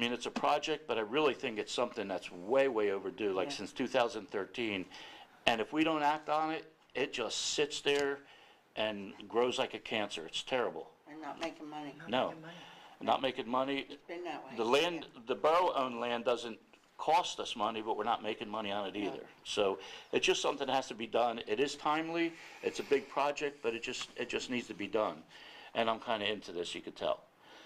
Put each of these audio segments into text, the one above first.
I mean, it's a project, but I really think it's something that's way, way overdue, like Yeah. since 2013. And if we don't act on it, it just sits there and grows like a cancer. It's terrible. and not making money. No, not making money. Been that way. The land, the borough-owned land doesn't cost us money, but we're not making money on it either. So it's just something that has to be done. It is timely, it's a big project, but it just, it just needs to be done. And I'm kind of into this, you could tell.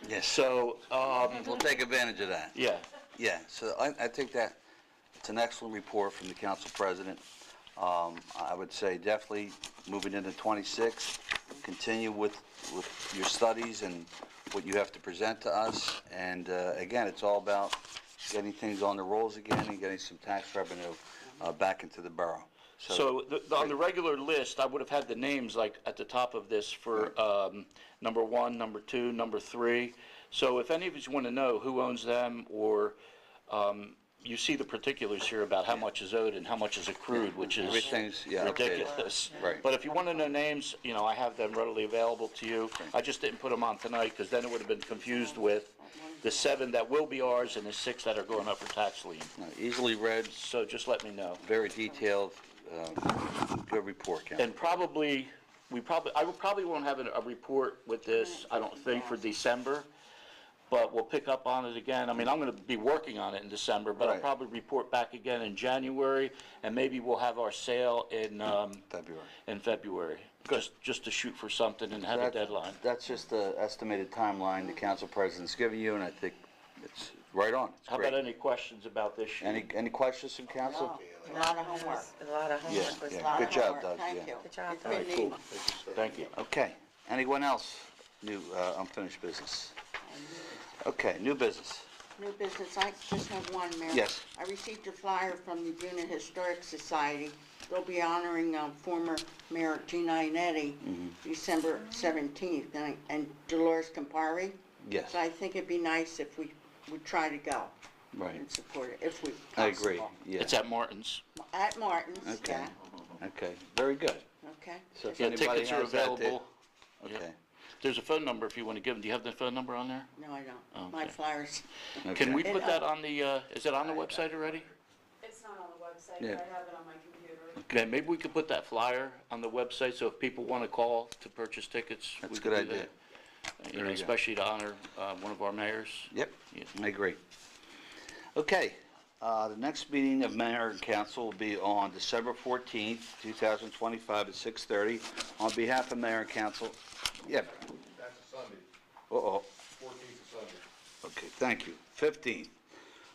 Yes, So, um, we'll take advantage of that. yeah, Yeah, so I, I think that it's an excellent report from the council president. Um, I would say definitely moving into 26, continue with, with your studies and what you have to present to us. And, uh, again, it's all about getting things on the rolls again and getting some tax revenue, uh, back into the borough. so the- the- on the regular list, I would have had the names like at the top of this for, um, number one, number two, number three. So if any of you want to know who owns them or, um, you see the particulars here about how much is owed and how much is accrued, which is. Everything's, yeah, updated. ridiculous. Right. But if you want to know names, you know, I have them readily available to you. I just didn't put them on tonight because then it would have been confused with the seven that will be ours and the six that are going up for tax lien. Uh, Easily read, So just let me know. very detailed, uh, good report, Ken. And probably, we probably, I will- probably won't have a, a report with this, I don't think, for December, but we'll pick up on it again. I mean, I'm gonna be working on it in December, but I'll Right. probably report back again in January, and maybe we'll have our sale in, um, February. in February. Just, just to shoot for something and have a That's- deadline. That's just the estimated timeline the council president's giving you, and I think it's right on. It's How great. about any questions about this sheet? Any, any questions from No, council? Oh, a lot of homework. A lot of Yeah, homework was yeah. lot done. Good of job, homework. Doug, yeah. Thank you. Good job, It's Doug. been neat. Thank you. Okay. Anyone else? New, uh, unfinished business? Okay, new business. New business, I just have one, Mayor. Yes. I received a flyer from the Buena Historic Society. They'll be honoring um, former Mayor Gina Inetti, Mm-hmm. December 17th, and I- and Dolores Campari. Yes. So I think it'd be nice if we would try to go Right. and support it, if we possible. I agree, yeah. It's at Martin's. At Martin's, Okay. yeah, Okay, very good. okay. So if Yeah, anybody tickets are has that, they- available. Yeah. Okay. There's a phone number if you want to give them. Do you have the phone number on there? No, I Oh, don't. My Okay. flyers. Can okay. we put that on the, uh, is it on the website already? It's not on the website, Yeah. but I have it on my computer. Okay, maybe we could put that flyer on the website, so if people want to call to purchase tickets. we That's a could good do idea. that. You There know, you go. especially to honor, uh, one of our mayors. Yep, Yeah. I agree. Okay, uh, the next meeting of mayor and council will be on December 14th, 2025 at 6:30. On behalf of mayor and council, yeah, That's a Sunday, uh-oh, fourteenth of Sunday. okay, thank you. 15th,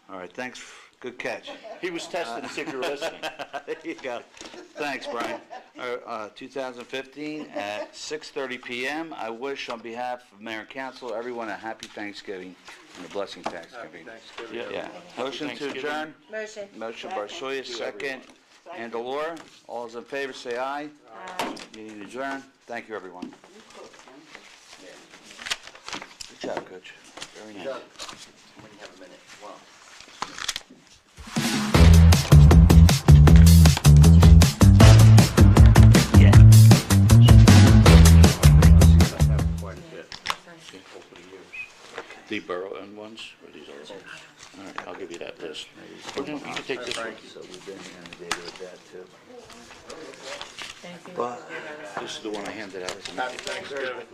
all right, thanks, good catch. He was testing to see if you were Uh, listening. There you go. Thanks, Brian. All right, uh, 2015 at 6:30 PM. I wish on behalf of mayor and council, everyone a happy Thanksgiving and a blessing Thanksgiving. Yeah, motion to Thanksgiving. adjourn? Motion. Motion by Shoya, second. And Delora, all those in favor, say aye. Aye. Meeting adjourned. Thank you, everyone. Good job, Coach. Very nice. The borough-owned ones, or these are ours? All right, I'll give you that list. Or no, You can take this one. So we've been inundated with that, too. Thank you. This is the one I handed out.